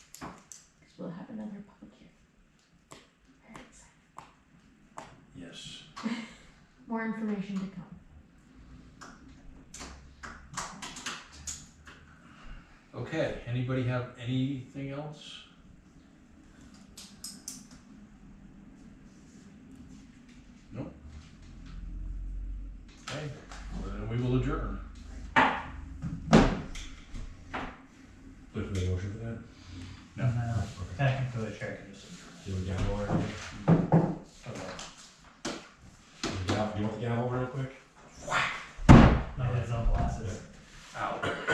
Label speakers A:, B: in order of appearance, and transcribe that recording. A: more information to come.
B: Okay, anybody have anything else? Nope. Okay, well, then we will adjourn.
C: Look for the motion for that?
B: No.
D: Technically, the chair can just.
C: Yeah, we got one.